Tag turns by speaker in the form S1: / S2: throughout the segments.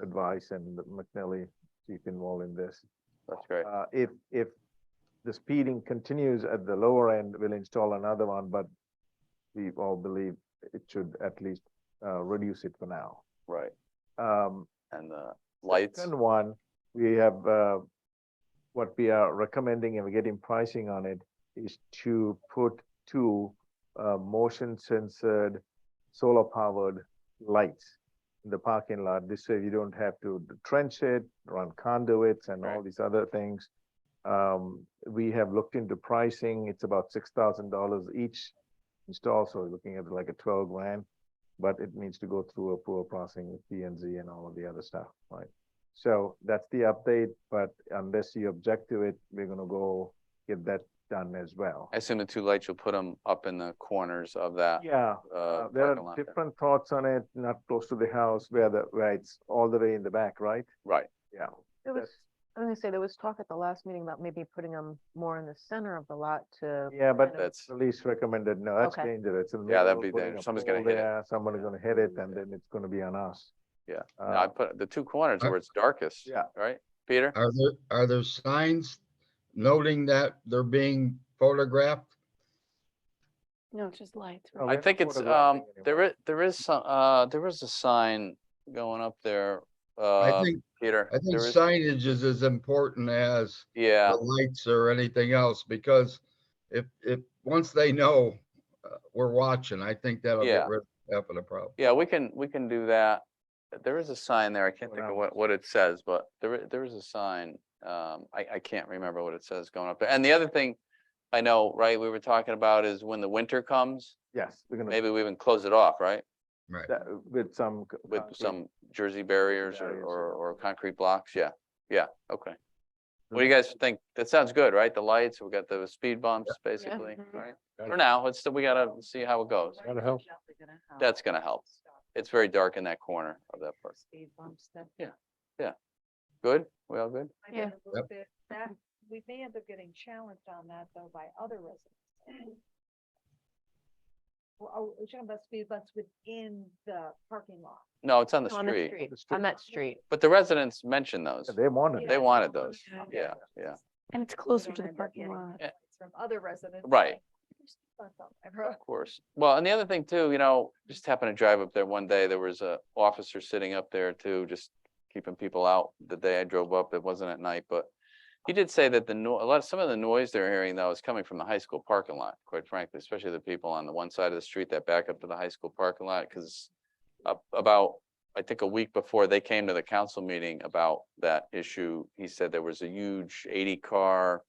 S1: advice and McNally, chief involved in this.
S2: That's great.
S1: Uh, if, if the speeding continues at the lower end, we'll install another one, but we all believe it should at least, uh, reduce it for now.
S2: Right.
S1: Um,
S2: And the lights,
S1: Second one, we have, uh, what we are recommending and we're getting pricing on it is to put two, uh, motion censored, solar powered lights in the parking lot. This way you don't have to trench it, run conduits and all
S2: Right.
S1: these other things. Um, we have looked into pricing. It's about six thousand dollars each install, so we're looking at like a twelve grand. But it needs to go through a poor processing with P and Z and all of the other stuff, right? So that's the update, but unless you object to it, we're gonna go get that done as well.
S2: I assume the two lights, you'll put them up in the corners of that,
S1: Yeah,
S2: uh,
S1: uh, there
S2: parking
S1: are
S2: lot. there.
S1: different thoughts on it, not close to the house where the, where it's all the way in the back, right?
S2: Right,
S1: Yeah.
S3: There was, I was gonna say, there was talk at the last meeting about maybe putting them more in the center of the lot to.
S1: Yeah, but
S3: kind of-
S2: that's,
S1: Police recommended, no, that's
S3: Okay.
S1: dangerous. in the
S2: Yeah, that'd
S1: middle,
S2: be
S1: putting a
S2: dangerous. Somebody's gonna
S1: pole
S2: hit it.
S1: there, Somebody's gonna hit it and then it's gonna be on us.
S2: Yeah. No,
S1: Uh,
S2: I put the two corners
S4: I-
S2: where it's darkest.
S1: yeah.
S2: Right, Peter?
S4: Are there, are there signs noting that they're being photographed?
S5: No, it's just lights.
S1: Oh,
S5: right?
S2: I
S1: we're
S2: think
S1: not
S2: it's, um,
S1: photographing anyone.
S2: there is, there is some, uh, there is a sign going up there,
S4: I
S2: uh,
S4: think,
S2: Peter.
S4: I think
S2: there is-
S4: signage is as important as
S2: Yeah,
S4: the lights or anything else, because if, if, once they know uh, we're watching, I think that'll
S2: Yeah.
S4: get rid of half of the problem.
S2: yeah, we can, we can do that. There is a sign there. I can't
S1: Well,
S2: think
S1: now-
S2: of what, what it says, but there, i- there is a sign. Um, I, I can't remember what it says going up there. And the other thing I know, right, we were talking about is when the winter comes,
S1: Yes, we're gonna,
S2: maybe we even close it off, right?
S1: that- with some. uh, c-
S2: With
S1: concrete.
S2: some Jersey barriers or,
S1: barriers,
S2: or,
S1: yeah.
S2: or concrete blocks, yeah, yeah, okay. What do you guys think? That sounds good, right? The lights, we got the speed bumps, basically,
S5: Mhm.
S2: right?
S1: Got
S2: For
S1: it.
S2: now, it's, still- we gotta see how it goes.
S1: Gotta help.
S2: That's gonna help. It's very dark in that corner of that part.
S3: Speed bumps that.
S2: Good? We all good?
S6: I think
S5: Yeah.
S6: a little bit, that, we may end up getting challenged on that though by other residents. Well, oh, are we talking about speed bumps within the parking lot?
S2: No, it's on the
S3: On the
S2: street,
S3: street,
S1: The street.
S3: on that street.
S2: but the residents mentioned those.
S1: Yeah, They wanted.
S2: They
S1: it.
S2: wanted those,
S6: Yeah.
S2: yeah, yeah.
S5: And it's
S6: We
S5: closer
S6: don't
S5: to the
S6: end up
S5: parking
S6: getting
S5: lot.
S6: complaints From other residents.
S2: Right.
S6: saying, "There's speed bumps on my road."
S2: Of course. Well, and the other thing too, you know, just happened to drive up there one day, there was a officer sitting up there too, just keeping people out. The day I drove up, it wasn't at night, but he did say that the no, a lot, some of the noise they're hearing though is coming from the high school parking lot, quite frankly, especially the people on the one side of the street that back up to the high school parking lot, because up about, I think a week before they came to the council meeting about that issue, he said there was a huge eighty car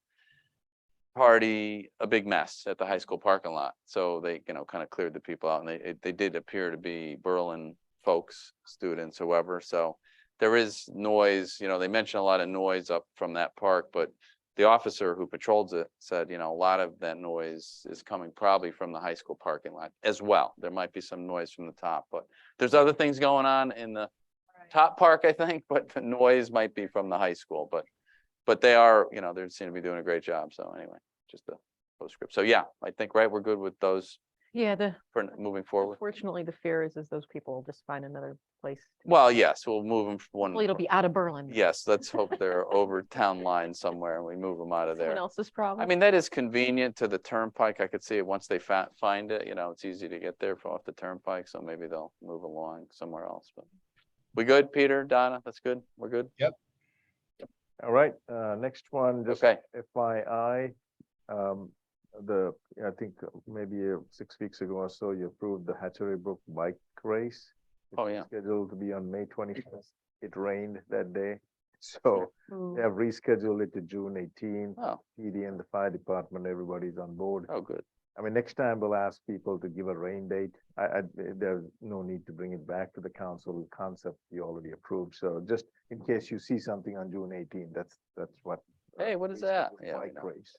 S2: party, a big mess at the high school parking lot. So they, you know, kind of cleared the people out and they, it- they did appear to be Berlin folks, students, whoever. So there is noise, you know, they mentioned a lot of noise up from that park, but the officer who patrols it said, you know, a lot of that noise is coming probably from the high school parking lot as well. There might be some noise from the top, but there's other things going on in the
S6: Right.
S2: top park, I think, but the noise might be from the high school, but, but they are, you know, they seem to be doing a great job. So anyway, just a postscript. So yeah, I think, right, we're good with those
S3: Yeah, the,
S2: for n- moving forward.
S3: fortunately, the fear is, is those people will just find another place. to-
S2: Well, yes, we'll move them one.
S3: Hopefully it'll be out of Berlin.
S2: Yes, let's hope they're over town line somewhere and we move them out of
S3: Someone
S2: there.
S3: else's problem.
S2: I mean, that is convenient to the turnpike. I could see it once they fa- find it, you know, it's easy to get there from off the turnpike, so maybe they'll move along somewhere else, but. We good, Peter, Donna? That's good? We're good?
S1: All right, uh, next one, just
S2: Okay,
S1: FYI, um, the, I think uh, maybe uh, six weeks ago or so, you approved the Hatchery Brook Bike Race. It
S2: Oh,
S1: was
S2: yeah.
S1: Scheduled to be on May twenty-first. It rained that day, so
S3: Ooh.
S1: they have rescheduled it to June eighteenth.
S2: oh,
S1: PD and the fire department, everybody's on board.
S2: oh, good.
S1: I mean, next time we'll ask people to give a rain date. I, I, there's no need to bring it back to the council concept you already approved. So just in case you see something on June 18, that's, that's what. uh,
S2: Hey, what is
S1: race-
S2: that?
S1: what
S2: Yeah, we
S1: bike
S2: know.
S1: race.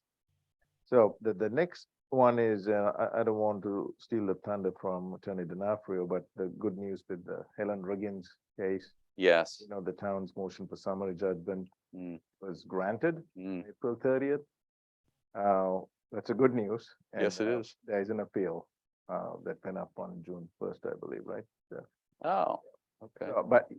S1: So the, the next one is, uh, I, I don't want to steal the thunder from Attorney DiNapoli, but the good news with the Helen Riggins case,
S2: Yes,
S1: you know, the town's motion for summary judgment
S2: Mm.
S1: was granted.
S2: Mm,
S1: April thirtieth. Uh, that's a good news. and,
S2: yes, it
S1: uh,
S2: is.
S1: There is an appeal, uh, that went up on June first, I believe, right?
S2: Oh, okay.
S1: Uh, But